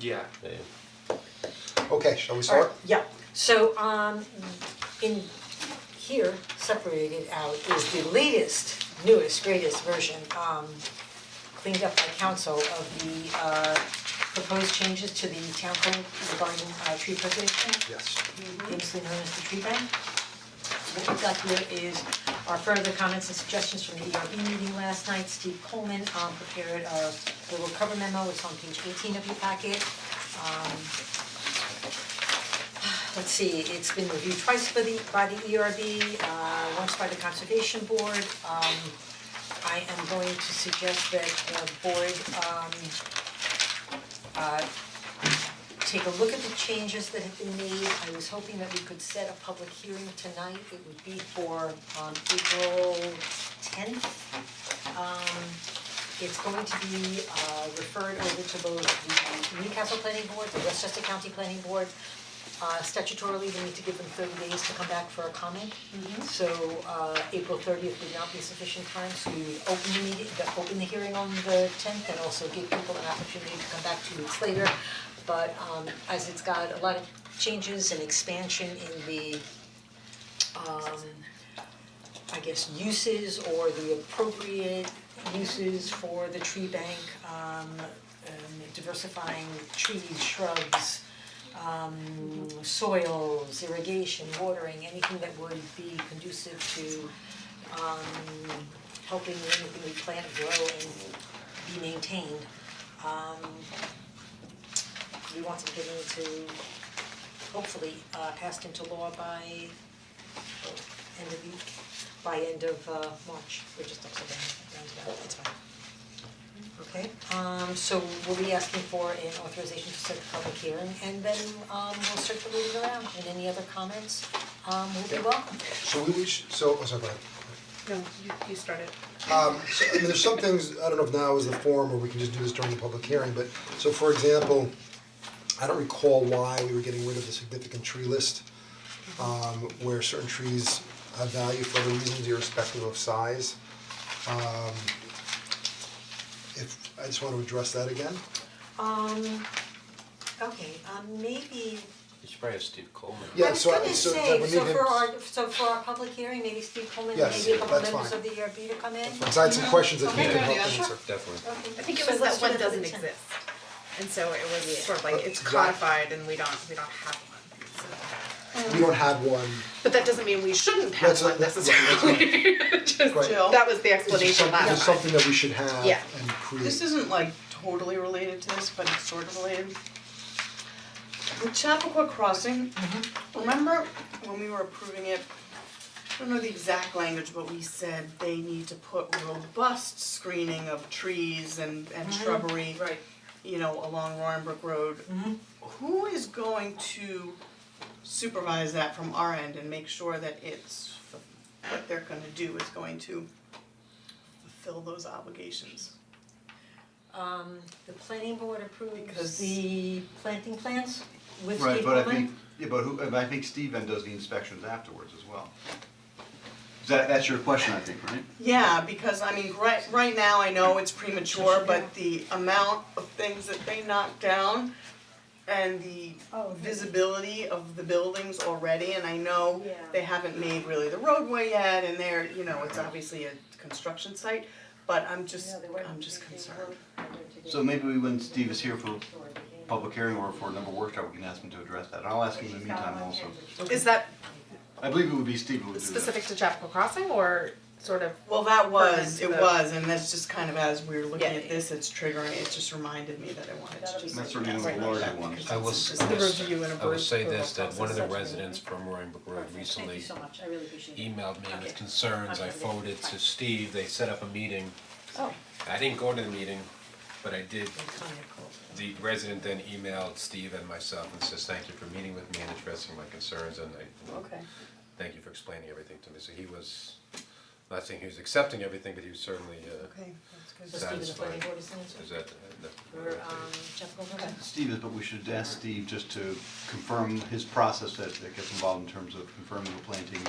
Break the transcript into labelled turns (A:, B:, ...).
A: Yeah.
B: Yeah.
C: Okay, shall we start?
D: Alright, yeah, so um in here, separated out is the latest, newest, greatest version um cleaned up by council of the uh proposed changes to the town code regarding uh tree preservation
C: Yes.
D: famously known as the tree bank. What we've got here is our further comments and suggestions from the ERB meeting last night, Steve Coleman um prepared a little cover memo, it's on page eighteen of your packet. Um, let's see, it's been reviewed twice by the by the ERB, uh once by the conservation board. Um I am going to suggest that the board um uh take a look at the changes that have been made. I was hoping that we could set a public hearing tonight. It would be for um April tenth. Um it's going to be uh referred over to both the Newcastle Planning Board, the Westchester County Planning Board. Uh statutorily, we need to give them thirty days to come back for a comment. So uh April thirtieth would not be sufficient time, so we would open the meeting, the open the hearing on the tenth and also give people an opportunity to come back two weeks later. But um as it's got a lot of changes and expansion in the um I guess uses or the appropriate uses for the tree bank, um um, diversifying trees, shrubs, um soils, irrigation, watering, anything that would be conducive to um helping anything we plant grow and be maintained. Um we want to get into hopefully uh passed into law by oh, end of week, by end of uh March, we're just upside down, roundabout, it's fine. Okay, um so we'll be asking for an authorization to set the public hearing and then um we'll circulate it around and any other comments um will be welcome.
C: So we, we sh so, oh, sorry, go ahead.
E: No, you, you started.
C: Um, so, I mean, there's some things, I don't know if now is the forum or we can just do this during the public hearing, but, so for example, I don't recall why we were getting rid of the significant tree list, um, where certain trees have value for other reasons irrespective of size. Um, if, I just wanna address that again,
D: Um okay, um maybe,
B: You should probably have Steve Coleman.
C: Yeah,
D: I was
C: so I-
D: gonna
C: so that
D: say,
C: would
D: so
C: need him-
D: for our, so for our public hearing, maybe Steve Coleman,
C: Yes,
D: maybe a couple
C: that's
D: members
C: fine.
D: of the ERB to come in.
C: because I had some questions that
D: Okay,
C: you can
D: yeah,
C: help
D: sure.
C: answer.
B: Definitely.
D: Okay.
E: I think it
D: So
E: was
D: let's
E: that
D: do
E: one
D: it for the
E: doesn't
D: 10th.
E: exist, and so it was sort of like, it's
C: Exactly.
E: codified and we don't, we don't have one, so.
C: We don't have one,
E: But that doesn't mean we shouldn't have
C: That's a-
E: one
C: that's-
E: necessarily, just,
C: Right.
E: that was the
C: it's just
E: explanation
C: something,
E: last
C: it's
E: time.
C: something that we should have
E: Yeah.
C: and create.
F: This isn't like totally related to this, but it's sort of related. The Chappaqua Crossing,
C: Mm-hmm.
F: remember when we were approving it, I don't know the exact language, but we said they need to put robust screening of trees and and
E: Mm-hmm.
F: shrubbery,
E: Right.
F: you know, along Roarenbrook Road.
C: Mm-hmm.
F: Who is going to supervise that from our end and make sure that it's, what they're gonna do is going to fulfill those obligations?
D: Um the planning board approves
F: Because-
D: the planting plans with Steve
G: Right, but I
D: Coleman.
G: think, yeah, but who, and I think Steve then does the inspections afterwards as well. Is that, that's your question, I think, right?
F: Yeah, because I mean, right, right now, I know it's premature, but the amount of things that they knocked down and the visibility of the buildings already, and I know
D: Yeah.
F: they haven't made really the roadway yet, and they're, you know, it's obviously a construction site, but I'm just, I'm just concerned.
G: So maybe we, when Steve is here for public hearing or for another workshop, we can ask him to address that, and I'll ask him in the meantime also.
E: Is that
G: I believe it would be Steve who would do that.
E: specific to Chapel Crossing or sort of,
F: Well, that was, it
E: Pertinent to the-
F: was, and that's just kind of as we were looking
E: Yeah.
F: at this, it's triggering, it just reminded me that I wanted to just.
G: That's certainly one
F: ask
G: of the
F: about
G: larger
F: that
G: ones.
F: because
B: I will
F: it's
B: s-
F: just-
E: the review and
B: I will
E: approval
B: say this, that
E: process?
B: one of the residents from Rhinebeck Road recently
D: Thank you so much, I really appreciate it.
B: emailed me with
D: Okay.
B: concerns, I
D: Okay.
B: forwarded to
D: Fine.
B: Steve, they set up a meeting.
D: Oh.
B: I didn't go to the meeting, but I did,
D: Kind of cool.
B: the resident then emailed Steve and myself and says, thank you for meeting with me and addressing my concerns, and I
F: Okay.
B: thank you for explaining everything to me, so he was, not saying he was accepting everything, but he was certainly, uh,
F: Okay, that's good.
D: So Steve is the planning
B: Satisfied.
D: board is the answer?
B: is that, uh, the-
D: Or um Jeff Goldberg?
G: Steve is, but we should ask Steve just to confirm his process that that gets involved in terms of confirming the plantings